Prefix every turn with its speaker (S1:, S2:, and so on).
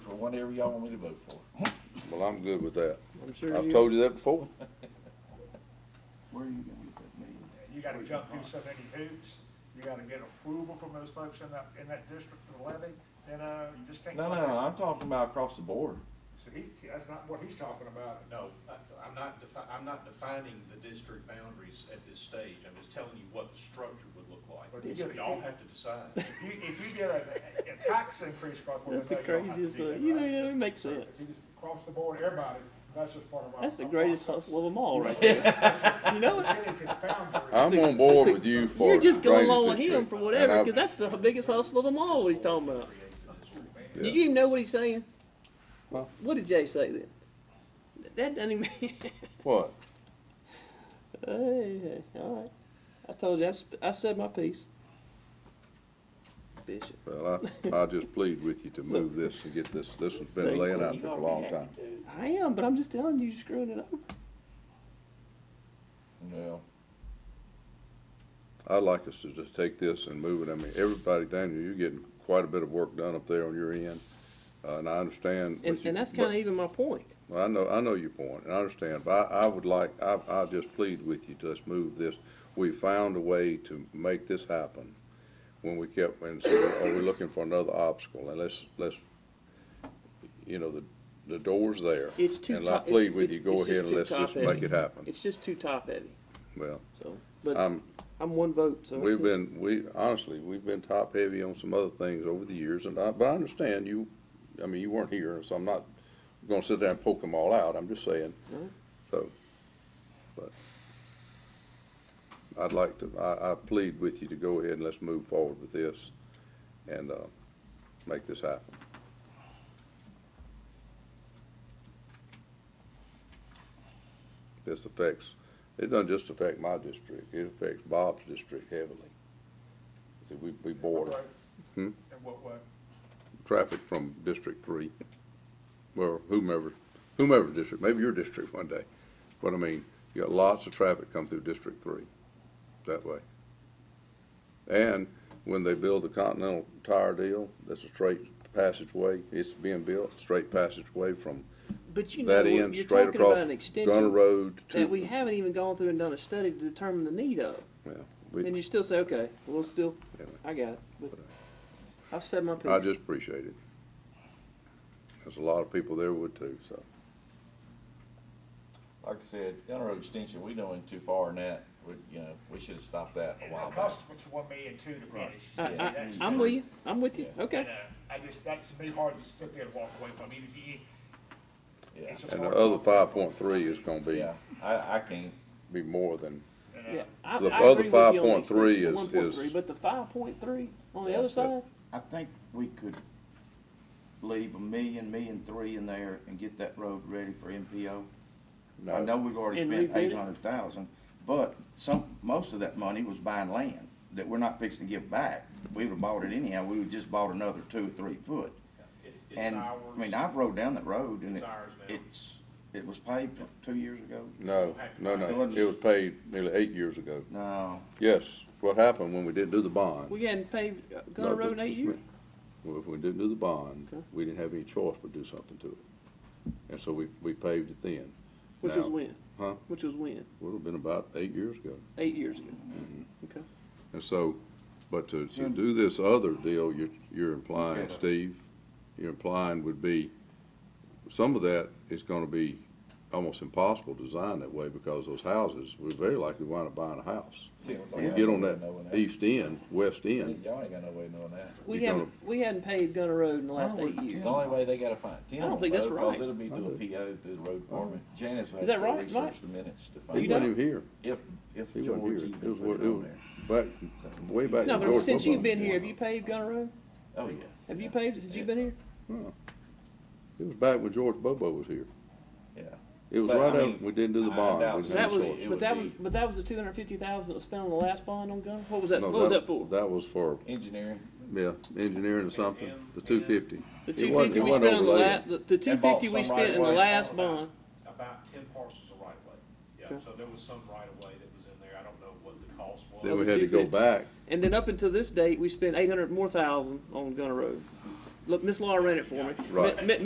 S1: whatever y'all want me to vote for.
S2: Well, I'm good with that.
S3: I'm sure
S2: I've
S3: you-
S2: told you that before.
S4: Where are you going with that meeting?
S5: You gotta jump through so many hoops, you gotta get approval from those folks in that, in that district to levy, then, uh, you just can't.
S1: No, no, no, I'm talking about across the board.
S5: So he, that's not what he's talking about.
S6: No, I- I'm not defi, I'm not defining the district boundaries at this stage. I'm just telling you what the structure would look
S5: But you
S6: like.
S5: get-
S6: Y'all have to decide.
S5: If you, if you get a, a tax increase, God, we
S3: That's the
S5: know you don't have to
S3: craziest,
S5: do
S3: uh,
S5: that,
S3: you know,
S5: right?
S3: yeah, it makes sense.
S5: If you just Across the board, everybody, that's just part of our.
S3: That's the
S5: our
S3: greatest
S5: process.
S3: hustle of them all, right there. You know it.
S5: Getting to the boundary.
S2: I'm on board with you for.
S3: You're just going
S2: drainage
S3: along with
S2: district,
S3: him for whatever,
S2: and
S3: because
S2: I've-
S3: that's the biggest hustle of them all. What he's talking about.
S2: Yeah.
S3: Did you even know what he's saying?
S2: Well-
S3: What did Jay say then? That doesn't even.
S2: What?
S3: Hey, hey, all right. I told you. I, sp- I said my piece. Bishop.
S2: Well, I, I just plead with you to
S3: So-
S2: move this, to get this, this has been laying out there for a long time.
S3: I am, but I'm just telling you, you're screwing it up.
S1: Well,
S2: I'd like us to just take this and move it. I mean, everybody, Daniel, you're getting quite a bit of work done up there on your end. Uh, and I understand. what
S3: And,
S2: you-
S3: and that's
S2: but-
S3: kind of even my point.
S2: Well, I know, I know your point, and I understand, but I, I would like, I, I just plead with you to let's move this. We found a way to make this happen when we kept, and so are we looking for another obstacle? And let's, let's, you know, the, the door's there.
S3: It's too
S2: And I
S3: top- it's-
S2: plead with you,
S3: it's- it's
S2: go
S3: just
S2: ahead and
S3: too
S2: let's just
S3: top-heavy.
S2: make it happen.
S3: It's just too top heavy.
S2: Well,
S3: So, but
S2: I'm,
S3: I'm one vote. So
S2: We've
S3: it's-
S2: been, we, honestly, we've been top heavy on some other things over the years, and I, but I understand you, I mean, you weren't here, so I'm not gonna sit there and poke them all out, I'm just saying,
S3: Alright.
S2: so, but. I'd like to, I, I plead with you to go ahead and let's move forward with this and, uh, make this happen. This affects, it doesn't just affect my district, it affects Bob's district heavily. See, we, we border
S5: Right.
S2: Hmm?
S5: In what way?
S2: traffic from District Three, well, whomever, whomever's district, maybe your district one day. But I mean, you got lots of traffic come through District Three that way. And when they build the Continental Tire deal, that's a straight passageway, it's being built, straight passageway from
S3: But you know,
S2: that end
S3: you're
S2: straight
S3: talking about
S2: across
S3: an
S2: Gunner
S3: extension
S2: Road to.
S3: that we haven't even gone through and done a study to determine the need of.
S2: Yeah, we,
S3: And you still say, okay, we'll still,
S2: Yeah.
S3: I got it. But I've said my piece.
S2: I just appreciate it. There's a lot of people there would too, so.
S1: like I said, Gunner Road Extension, we done went too far in that, we, you know, we should've stopped that a
S5: And
S1: while
S5: it
S1: back.
S5: costs us one million two to finish.
S3: I,
S5: Yeah, that's-
S3: am with you. Uh, I'm with you. Okay.
S5: And, uh, I just, that's to me hard to sit there and walk away from, even if you,
S1: Yeah,
S5: it's just
S2: And the
S5: hard to
S2: other
S5: walk away
S2: five
S5: from.
S2: point three is gonna be,
S1: yeah, I, I can't,
S2: be more than,
S5: And, uh,
S3: Yeah. I,
S2: The
S3: I
S2: other
S3: agree with you on the
S2: 5.3
S3: extension,
S2: is-
S3: the 1.3,
S2: is-
S3: But the 5.3 on the
S1: Yeah,
S3: other
S1: but-
S3: side,
S4: I think we could leave a million, million three in there and get that road ready for MPO. I know we've already
S3: And
S4: spent
S3: rebid it?
S4: eight hundred thousand, but some, most of that money was buying land that we're not fixing to give back. We would've bought it anyhow, we would've just bought another two or three foot.
S6: It's, it's
S4: And,
S6: ours.
S4: I mean, I've rode down that road and
S6: It's
S4: it,
S6: ours now.
S4: it's, it was paved two years ago.
S2: no, no, no, it was paid nearly eight years ago.
S4: No,
S2: Yes, what happened when we didn't do the bond?
S3: we hadn't paved uh, Gunner
S2: No,
S3: Road in
S2: just-
S3: eight years.
S2: Well, if we didn't do the bond,
S3: Okay.
S2: we didn't have any choice but do something to it. And so we, we paved it then.
S3: Which
S2: Now-
S3: was when?
S2: Huh?
S3: Which was when?
S2: Would have been about eight years ago.
S3: Eight years ago.
S2: Mm-hmm.
S3: Okay.
S2: And so, but to, to do this other deal, you're, you're implying,
S4: Together.
S2: Steve, you're implying would be, some of that is gonna be almost impossible to design that way because those houses, we're very likely wind up buying a house. When you get on that east end, west end,
S1: Y'all ain't got no way of knowing that.
S3: We
S2: You
S3: haven't we hadn't paved Gunner Road in the last
S4: Oh,
S3: eight
S4: yeah.
S3: years.
S1: The only way they gotta find Tim.
S3: I don't think that's right.
S1: Cause it'll be
S2: I
S1: through a
S2: do.
S1: PO through the road department. Janice will
S3: Is
S1: have to
S3: that right,
S1: research
S3: Mike?
S1: the minutes to
S2: he
S1: find
S3: You
S2: wasn't
S1: out
S2: even here,
S1: if, if
S2: he
S1: George
S2: wasn't here,
S1: even
S2: it was,
S1: put it
S2: it
S1: on
S2: was
S1: there.
S2: back, way back.
S3: No,
S2: to George
S3: but since
S2: Bush.
S3: you've been here, have you paved Gunner Road?
S1: Oh, yeah.
S3: Have you paved it since you've been here?
S2: It was back when George Bobo was here.
S1: Yeah.
S2: It was
S1: But, I
S2: right
S1: mean,
S2: after, we didn't do the
S1: I
S2: bond.
S1: doubt
S2: we
S1: so.
S2: didn't
S3: That was,
S2: sort it.
S1: It
S3: but that
S1: would
S3: was,
S1: be-
S3: but that was the two hundred fifty thousand that was spent on the last bond on Gunner. What was that?
S2: No,
S3: What was that for?
S2: That was for
S1: Engineering.
S2: Yeah, engineering or something, the two fifty.
S3: The two fifty we spent on the last, the, the two fifty we
S1: bought some right
S3: spent in the
S1: away.
S3: last bond.
S6: About ten parcels of right of way. Yeah,
S3: Okay.
S6: so there was some right of way that was in there. I don't know what the cost was.
S2: Then we had to go
S3: 250.
S2: back,
S3: And then up until this date, we spent eight hundred more thousand on Gunner Road. Look, Miss Laura ran it for me.
S2: Right.
S3: Mi- mi-